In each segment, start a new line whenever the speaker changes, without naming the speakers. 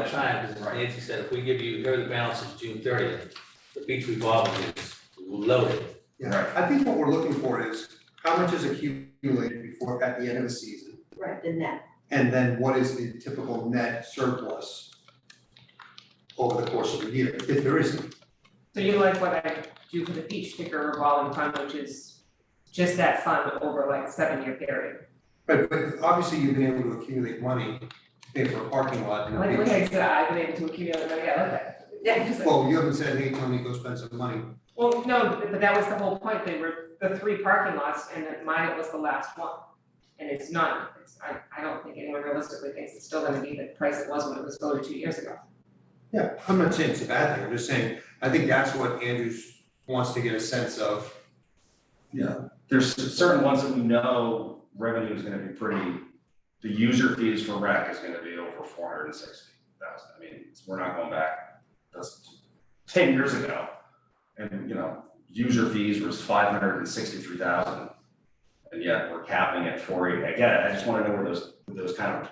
time, because as Nancy said, if we give you, here are the balances June thirtieth, the beach revolving is loaded.
Yeah, I think what we're looking for is how much is accumulated before, at the end of a season?
right, the net.
And then what is the typical net surplus over the course of the year, if there isn't?
So you like what I do for the beach sticker revolving fund, which is just that fund over like seven year period.
But, but obviously you've been able to accumulate money, to pay for a parking lot and a
Like,
beach.
like I said, I've been able to accumulate, money. I love that.
Yeah.
Because-
Well, you haven't said, hey, Tony, go spend some money.
Well, no, but that was the whole point, they were the three parking lots and that mine was the last one. And it's not, it's, I, I don't think anyone realistically thinks it's still gonna be the price it was when it was voted two years ago.
Yeah, I'm not saying it's a bad thing, I'm just saying, I think that's what Andrews wants to get a sense of.
there's certain ones that we know revenue is gonna be pretty, the user fees for rec is gonna be over four hundred and sixty thousand, I mean, it's- we're not going back, that's ten years ago. And, you know, user fees was five hundred and sixty-three thousand, and yet we're capping at four eighty, I get it, I just wanna know where those, those kind of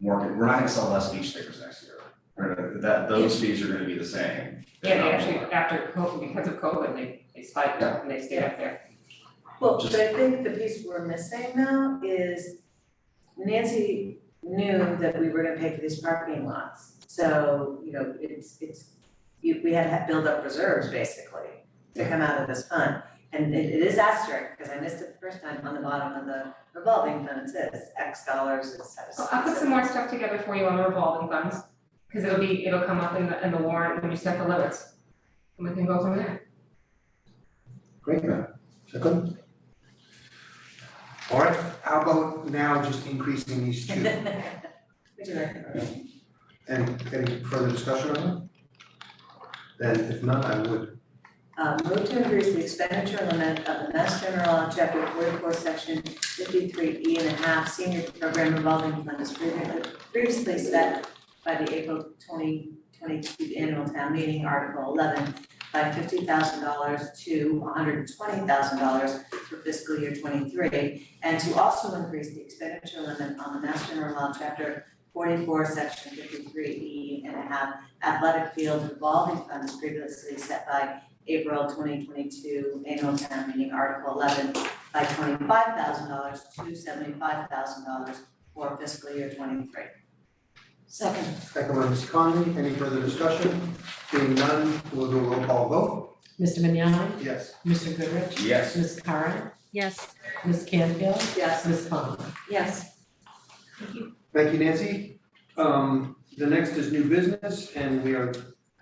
market, we're not gonna sell less beach stickers next year, We're gonna- that, those fees are gonna be the same. if
Yeah,
not
they
more.
actually, after COVID, because of COVID, they, they spiked up and they stayed up there.
Well,
Just-
but I think the piece we're missing now is Nancy knew that we were gonna pay for these parking lots. So, you know, it's, it's, you, we had to build up reserves basically to come out of this fund. And it, it is asterisk, because I missed it the first time on the bottom of the revolving fund, it says X dollars is set
So
aside.
I'll put some more stuff together for you on the revolving funds, cause it'll be, it'll come up in the, in the warrant when you set the limits. And we can go from there.
Great, man. Is that good? All right, how about now just increasing these two?
Would you recommend?
And any further discussion on that? Then if not, I would,
Uh, move to increase the expenditure limit of the Mass General Law, Chapter forty-four, Section fifty-three E and a half, senior program revolving fund as previously, previously set by the April twenty twenty-two annual town meeting, Article eleven, by fifty thousand dollars to hundred and twenty thousand dollars for fiscal year twenty-three, and to also increase the expenditure limit on the Mass General Law, Chapter forty-four, Section fifty-three E and a half, athletic field revolving fund as previously set by April twenty twenty-two annual town meeting, Article eleven, by twenty-five thousand dollars to seventy-five thousand dollars for fiscal year twenty-three. Second.
second by Ms. Conley, any further discussion? Being none, we'll do a roll call vote.
Mr. Vignani?
Yes.
Mr. Goodrich?
Yes.
Ms. Karen?
Yes,
Ms. Canfield?
Yes.
Ms. Conlon?
Yes.
Thank you, Nancy. Um, the next is new business, and we are,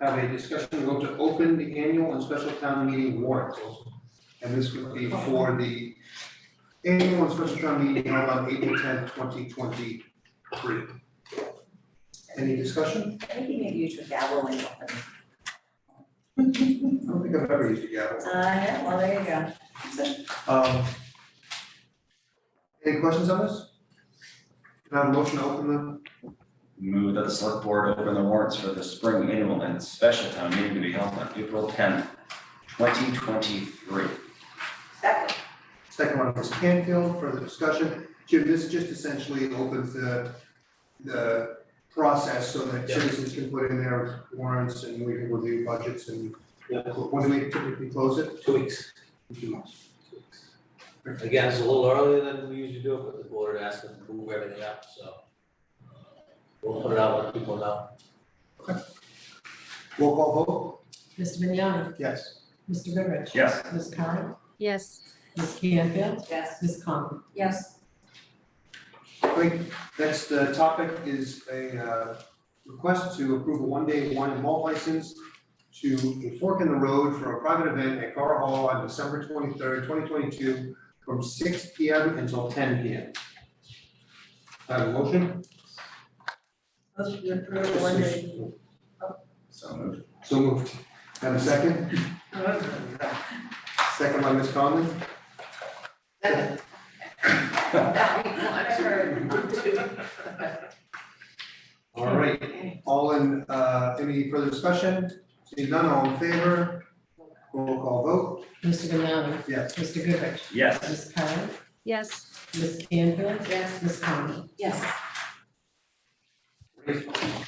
have a discussion, vote to open the annual and special town meeting warrant. And this would be for the annual and special town meeting held on April tenth, twenty twenty-three. Any discussion?
I think you need to use your gavel when you open.
I don't think I've ever used a gavel.
Uh, yeah, well, there you go.
Um. Any questions on this? Can I have a motion to open the,
Move that the select board open the warrants for the spring annual and special town meeting to be held on April tenth, twenty twenty-three.
Second.
second one, Ms. Canfield, further discussion. Jim, this just essentially opens the, the process so that
Yeah.
citizens can put in their warrants and we can review budgets and when do we typically close it?
Two weeks.
Two months.
Again, it's a little earlier than we usually do, it, but the board had asked them to move everything up, so. uh, We'll put it out, let people know.
Roll call vote?
Mr. Vignani?
Yes.
Mr. Goodrich?
Yes.
Ms. Karen?
yes,
Ms. Canfield?
Yes.
Ms. Conlon?
Yes.
Great, next uh, topic is a uh, request to approve a one-day wine and malt license to a fork in the road for a private event at Gar Hall on December twenty-third, twenty twenty-two, from six P M until ten P M. Have a motion?
Motion to approve the one day.
So moved.
So moved. Have a second? Second by Ms. Conlon? All right, all in, uh, any further discussion? Seeing none, all in favor? Roll call vote?
Mr. Vignani?
Yes.
Mr. Goodrich?
Yes.
Ms. Karen?
yes.
Ms. Canfield?
Yes.
Ms. Conlon?
Yes.